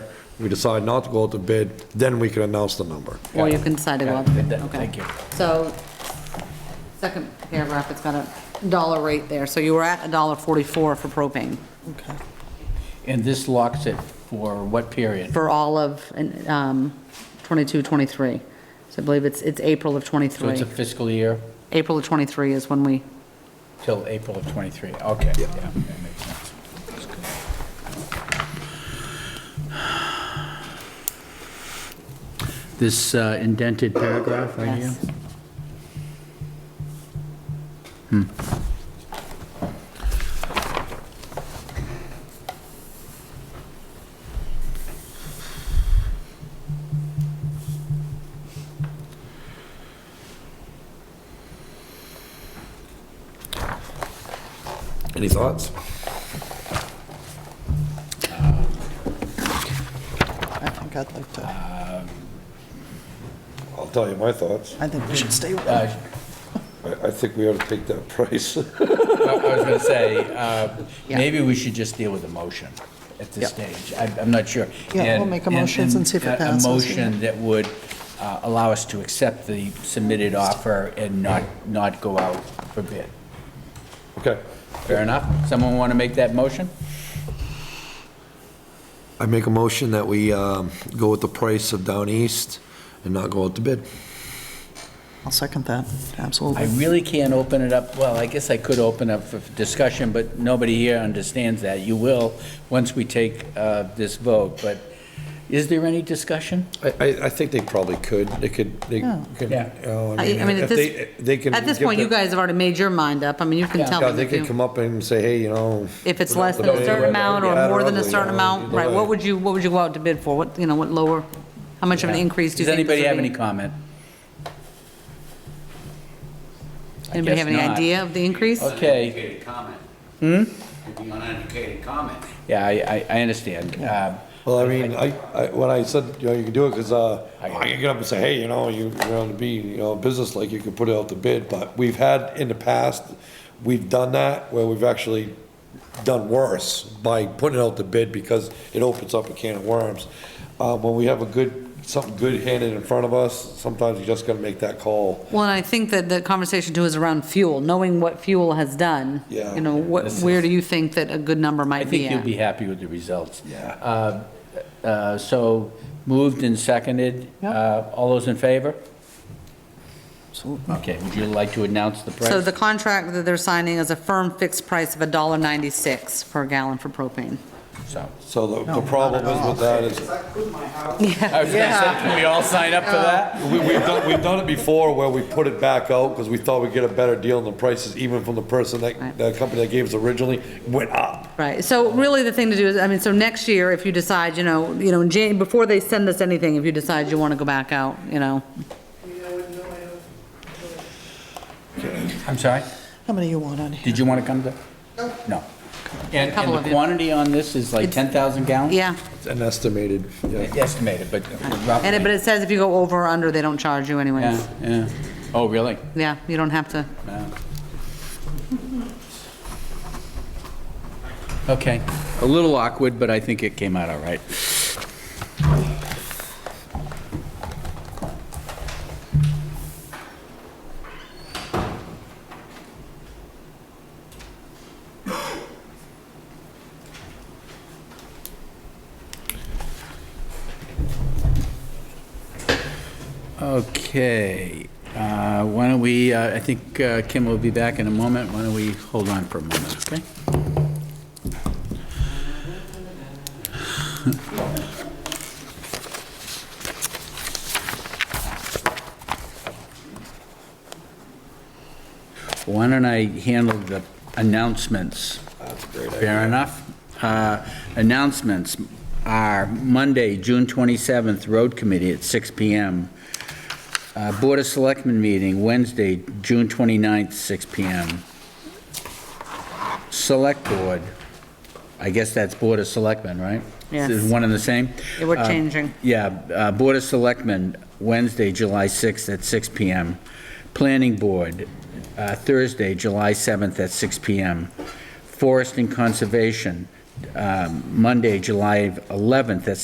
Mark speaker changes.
Speaker 1: we decide not to go out to bid, then we can announce the number.
Speaker 2: Or you can decide to go
Speaker 3: Got
Speaker 2: up.
Speaker 3: it. Good,
Speaker 2: Okay.
Speaker 3: thank you.
Speaker 2: So, second paragraph, it's got a dollar rate there. So you were at a dollar forty-four for propane
Speaker 3: Okay. And this locks it for what period?
Speaker 2: for all of, um, twenty-two, twenty-three. So I believe it's, it's April of
Speaker 3: So it's
Speaker 2: twenty-three.
Speaker 3: a fiscal year
Speaker 2: April of twenty-three is when we,
Speaker 3: till April of '23, okay. Yeah. that makes sense. That's good. This uh, indented paragraph right here?
Speaker 2: yes.
Speaker 1: Any thoughts?
Speaker 4: I think I'd like to,
Speaker 1: I'll tell you my thoughts.
Speaker 4: I think we should stay with
Speaker 3: Uh,
Speaker 1: I, I think we ought to take that price.
Speaker 3: I I was going to say, uh,
Speaker 2: Yeah.
Speaker 3: maybe we should just deal with the motion at this stage. I- I'm not sure.
Speaker 4: Yeah, we'll
Speaker 3: And-
Speaker 4: make a motion and see if it
Speaker 3: a-
Speaker 4: passes,
Speaker 3: A
Speaker 4: yeah.
Speaker 3: motion that would uh, allow us to accept the submitted offer and not, not go out for bid.
Speaker 1: Okay.
Speaker 3: Fair enough? Someone want to make that motion?
Speaker 1: I make a motion that we, um, go with the price of Down East and not go out to bid.
Speaker 4: I'll second that,
Speaker 3: I
Speaker 4: absolutely.
Speaker 3: really can't open it up, well, I guess I could open up for discussion, but nobody here understands that. You will, once we take uh, this vote, but is there any discussion?
Speaker 1: I, I, I think they probably could, they could, they could, you
Speaker 3: Yeah.
Speaker 1: know,
Speaker 2: I I mean,
Speaker 1: if
Speaker 2: at
Speaker 1: they,
Speaker 2: this,
Speaker 1: they can.
Speaker 2: at this
Speaker 1: give
Speaker 2: point, you
Speaker 1: the-
Speaker 2: guys have already made your mind up. I mean, you can
Speaker 3: Yeah.
Speaker 2: tell
Speaker 1: Yeah,
Speaker 2: them
Speaker 1: they
Speaker 2: if
Speaker 1: could
Speaker 2: you,
Speaker 1: come up and say, hey, you know.
Speaker 2: if it's less than a certain amount or more than a certain amount, right? What would you, what would you go out to bid for? What, you know, what lower, how much of an increase do you
Speaker 3: Does
Speaker 2: think? this
Speaker 3: anybody
Speaker 2: would
Speaker 3: have
Speaker 2: be?
Speaker 3: any comment? I
Speaker 2: Anybody have
Speaker 3: guess
Speaker 2: any
Speaker 3: not.
Speaker 2: idea of the increase?
Speaker 3: Okay,
Speaker 5: Uneducated comment. Hmm? It'd be uneducated comment.
Speaker 3: yeah, I, I I understand. Um,
Speaker 1: Well, I mean, I, I, when I said, you know, you can do it, cause, uh,
Speaker 3: I got
Speaker 1: I can get up and say, hey, you know, you, you're gonna be, you know, business like you could put it out to bid, but we've had in the past, we've done that where we've actually done worse by putting it out to bid because it opens up a can of worms. Uh, when we have a good, something good handed in front of us, sometimes you just gotta make that call.
Speaker 2: Well, and I think that the conversation too is around fuel, knowing what fuel has done.
Speaker 1: Yeah.
Speaker 2: You know, what, where do you think that a good number
Speaker 3: I
Speaker 2: might be
Speaker 3: think you'll
Speaker 2: at?
Speaker 3: be happy with the results.
Speaker 1: Yeah.
Speaker 3: Uh, uh, So moved and seconded.
Speaker 4: Yep.
Speaker 3: Uh, All those in favor?
Speaker 4: Absolutely.
Speaker 3: Okay, would you like to announce the price?
Speaker 2: So the contract that they're signing is a firm fixed price of a dollar ninety-six per gallon for propane.
Speaker 3: So-
Speaker 1: So the, the problem is with that is,
Speaker 3: I was gonna say, can we all sign up for that?
Speaker 1: We, we've done, we've done it before where we put it back out because we thought we'd get a better deal and the prices, even from the person that,
Speaker 2: Right.
Speaker 1: the company that gave us originally, went up.
Speaker 2: Right, so really the thing to do is, I mean, so next year, if you decide, you know, you know, in Jan, before they send us anything, if you decide you wanna go back out, you know,
Speaker 3: I'm sorry?
Speaker 4: How many you want on here?
Speaker 3: Did you want to come to? No. And,
Speaker 2: Couple
Speaker 3: and
Speaker 2: of
Speaker 3: the
Speaker 2: you.
Speaker 3: quantity on this is like
Speaker 2: It's-
Speaker 3: 10,000 gallons?
Speaker 2: yeah.
Speaker 1: It's An estimated, yeah.
Speaker 3: Estimated, but
Speaker 2: And it, but
Speaker 3: roughly.
Speaker 2: it says if you go over or under, they don't charge you anyways.
Speaker 3: Yeah, yeah. Oh, really?
Speaker 2: Yeah, you don't have to.
Speaker 3: Yeah. Okay. A little awkward, but I think it came out all right. Okay, uh, why don't we, uh, I think uh, Kim will be back in a moment, why don't we hold on for a moment, okay? Why don't I handle the announcements? Fair enough. Uh, Announcements are Monday, June 27th, Road Committee at 6 PM. Uh, Board of Selectmen meeting Wednesday, June 29th, 6 PM. Select Board, I guess that's Board of Selectmen, right?
Speaker 2: Yes.
Speaker 3: Is it one and the same?
Speaker 2: Yeah, We're
Speaker 3: Uh,
Speaker 2: changing.
Speaker 3: Yeah, uh, Board of Selectmen, Wednesday, July 6th at 6 PM. Planning Board, uh, Thursday, July 7th at 6 PM. Forest and Conservation, um, Monday, July 11th at